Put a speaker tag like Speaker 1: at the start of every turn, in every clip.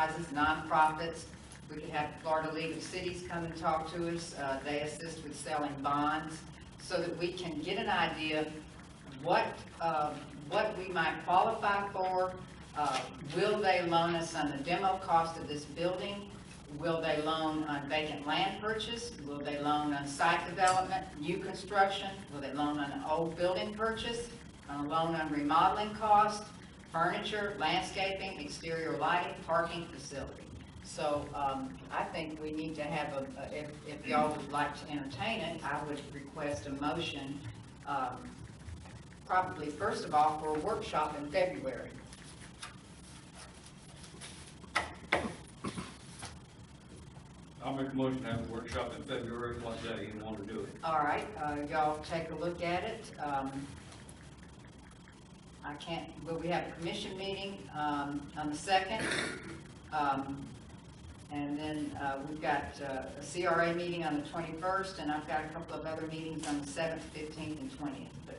Speaker 1: enterprises, nonprofits. We could have Florida League of Cities come and talk to us. Uh, They assist with selling bonds so that we can get an idea of what, uh, what we might qualify for. Uh, Will they loan us on the demo cost of this building? Will they loan on vacant land purchase? Will they loan on site development, new construction? Will they loan on an old building purchase? On a loan on remodeling cost, furniture, landscaping, exterior lighting, parking facility? So um, I think we need to have a, a- if, if y'all would like to entertain it, I would request a motion, um, probably first of all for a workshop in February.
Speaker 2: I'll make a motion to have a workshop in February, what day you want to do it.
Speaker 1: All right, uh, y'all take a look at it. Um, I can't, will we have a commission meeting um, on the second? Um, And then uh, we've got uh, a CRA meeting on the twenty-first, and I've got a couple of other meetings on the seventh, fifteenth, and twentieth, but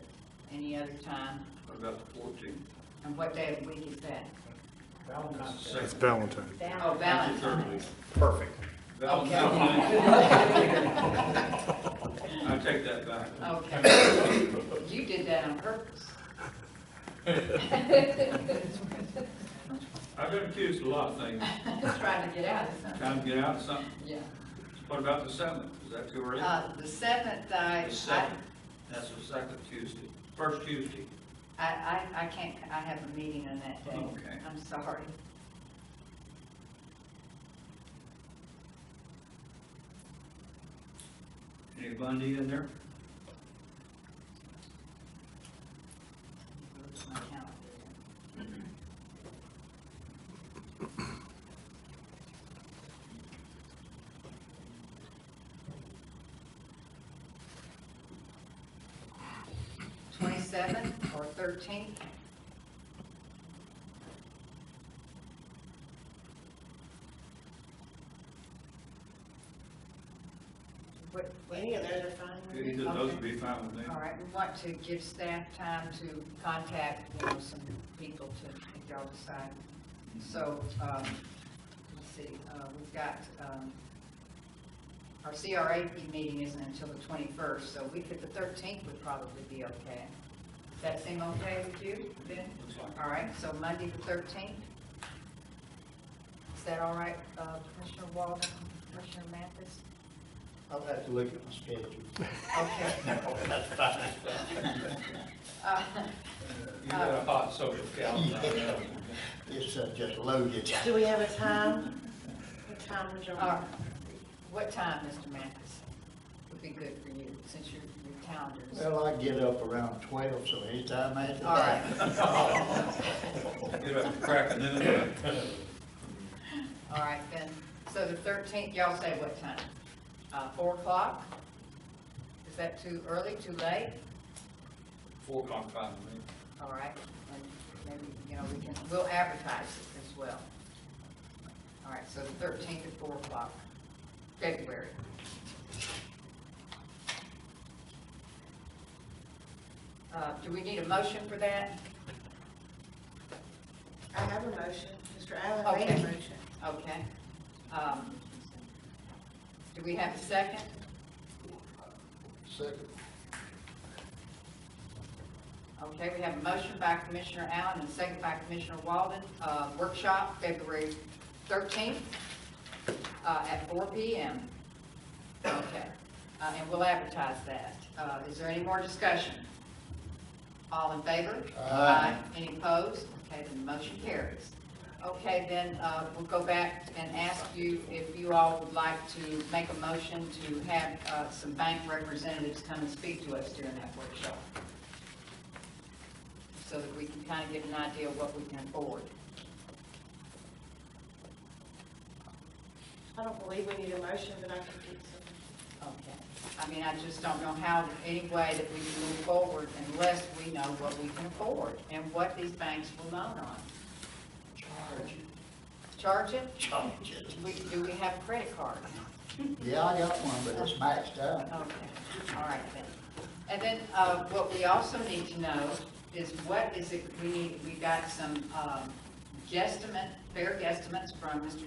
Speaker 1: any other time.
Speaker 2: What about the fourteenth?
Speaker 1: And what day of the week is that?
Speaker 3: Valentine's Day.
Speaker 2: Second.
Speaker 4: It's Valentine.
Speaker 1: Oh, Valentine's.
Speaker 2: Thursday.
Speaker 3: Perfect.
Speaker 1: Oh,
Speaker 2: I take that back.
Speaker 1: Okay. You did that on purpose.
Speaker 2: I've been accused of a lot of things,
Speaker 1: Trying to get out of something,
Speaker 2: trying to get out of something.
Speaker 1: yeah.
Speaker 2: What about the seventh? Is that too early?
Speaker 1: Uh, The seventh, I,
Speaker 2: The
Speaker 1: I,
Speaker 2: seventh, that's the second Tuesday, first Tuesday.
Speaker 1: I, I can't, I have a meeting on that day.
Speaker 2: Okay.
Speaker 1: I'm sorry.
Speaker 2: Any Monday in there?
Speaker 1: Go to my calendar. Twenty-seventh or thirteenth? What, what-
Speaker 5: Any of those are fine. with me.
Speaker 2: Either of those would be fine with me.
Speaker 1: all right, we want to give staff time to contact, you know, some people to, if y'all decide. So, um, let's see, uh, we've got, um, our CRA meeting isn't until the twenty-first, so we could, the thirteenth would probably be okay. Does that seem okay with you, Ben?
Speaker 2: Looks like
Speaker 1: All right, so Monday the thirteenth? Is that all right, uh, Commissioner Walden, Commissioner Mathis?
Speaker 3: I'll have to look at my
Speaker 1: Okay.
Speaker 3: schedule. That's fine.
Speaker 1: Uh,
Speaker 2: You got a hot social calendar. I know.
Speaker 3: It's uh, just loaded.
Speaker 5: Do we have a time? What time would you
Speaker 1: All right.
Speaker 5: like?
Speaker 1: What time, Mr. Mathis, would be good for you, since your, your calendar's?
Speaker 3: Well, I get up around twelve, so anytime after
Speaker 1: All
Speaker 3: that.
Speaker 1: right,
Speaker 2: Get up and crack a noon.
Speaker 1: all right, then, so the thirteenth, y'all say what time? Uh, four o'clock? Is that too early, too late?
Speaker 2: Four o'clock, five with me.
Speaker 1: All right, and maybe, you know, we can, we'll advertise it as well. All right, so the thirteenth at four o'clock, February. Uh, do we need a motion for that?
Speaker 5: I have a motion. Mr. Allen made a
Speaker 1: Okay.
Speaker 5: motion.
Speaker 1: Okay. Um, Do we have a second?
Speaker 3: Second.
Speaker 1: Okay, we have a motion by Commissioner Allen and a second by Commissioner Walden, uh, workshop February 13th uh, at 4 PM. Okay, Uh, and we'll advertise that. Uh, Is there any more discussion? All in favor?
Speaker 3: Aye.
Speaker 1: Any opposed? Okay, then the motion carries. Okay, then uh, we'll go back and ask you if you all would like to make a motion to have uh, some bank representatives come and speak to us during that workshop so that we can kind of get an idea of what we can afford.
Speaker 5: I don't believe we need a motion, but I can get some.
Speaker 1: Okay. I mean, I just don't know how, any way that we can move forward unless we know what we can afford and what these banks will loan on.
Speaker 3: Charge.
Speaker 1: Charge it?
Speaker 3: Charge it.
Speaker 1: We- Do we have credit cards?
Speaker 3: Yeah, I got one, but it's maxed out.
Speaker 1: Okay, all right then. And then, uh, what we also need to know is what is it, we need, we got some, um, guesstimate, fair guesstimates from Mr.